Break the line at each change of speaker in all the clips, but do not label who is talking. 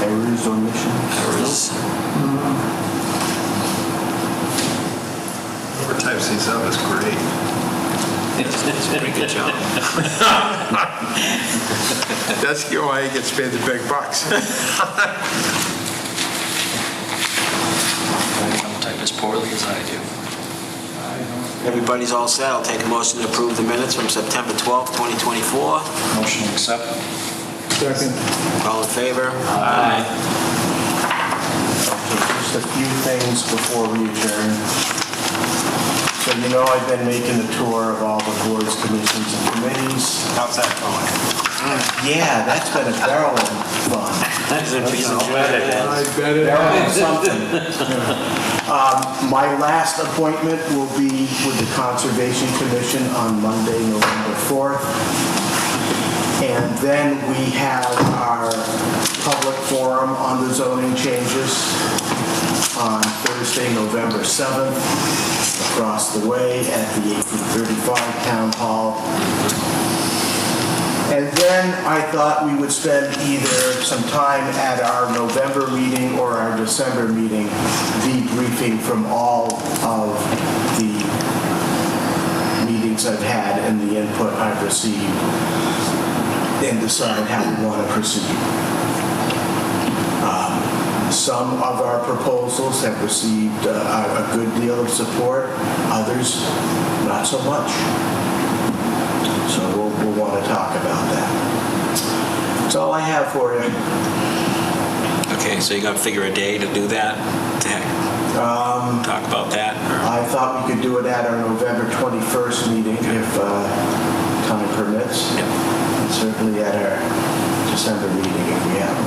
Errors or omissions?
Errors.
Whoever types these up is great.
It's a pretty good job.
That's why he gets paid the big bucks.
Don't type as poorly as I do.
Everybody's all set. I'll take a motion to approve the minutes from September 12th, 2024.
Motion to accept.
Second.
All in favor?
Aye.
Just a few things before we adjourn. So you know I've been making the tour of all the boards, commissions, and committees.
How's that going?
Yeah, that's been a barrel of fun. Barrel of something. Um, My last appointment will be with the Conservation Commission on Monday, November 4th. And then we have our public forum on the zoning changes on Thursday, November 7th, across the way at the 1835 Town Hall. And then I thought we would spend either some time at our November meeting or our December meeting debriefing from all of the meetings I've had and the input I've received and decide how we want to proceed. Um, Some of our proposals have received uh, a a good deal of support, others not so much. So we'll, we'll want to talk about that. That's all I have for you.
Okay, so you're going to figure a day to do that? To Talk about that? or-
I thought we could do it at our November 21st meeting if uh, time permits.
Yep.
And Certainly at our December meeting if we have.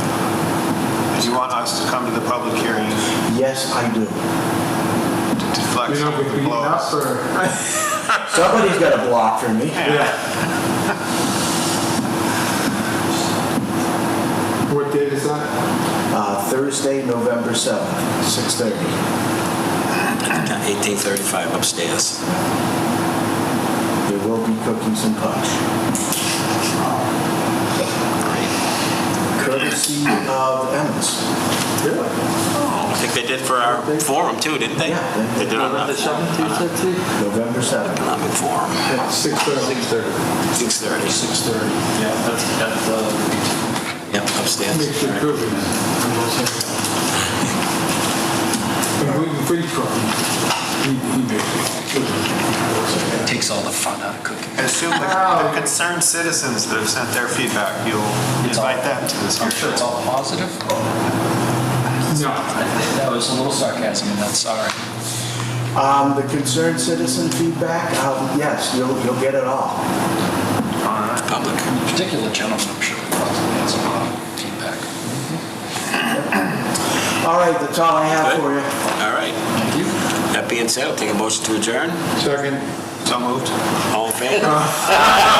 Do you want us to come to the public hearing to
one. Yes, I do.
deflect some of the blows?
Somebody's got a block for me.
What date is that?
Uh, Thursday, November 7th, 6:30.
1835 upstairs.
There will be cookies and punch.
Great.
Courtesy of Emmett's.
I think they did for our forum too, didn't they?
Yeah.
They did on the
November 7th.
economic forum.
At 6:30.
6:30.
6:30.
Yeah, that's, that's, uh,
Yep, upstairs.
Makes you good. And gluten free cookies. He, he makes it.
takes all the fun out of cooking.
Assume the the concerned citizens that have sent their feedback, you'll invite them to this
I'm sure
hearing.
it's all positive.
No,
I think That was a little sarcasm in that, sorry.
Um, The concerned citizen feedback, um, yes, you'll, you'll get it all.
Public.
Particular gentleman, I'm sure, probably has a lot of uh, feedback.
All right, that's all I have for you.
All right.
Thank you.
That being said, I'll take a motion to adjourn.
second.
So moved?
All in favor?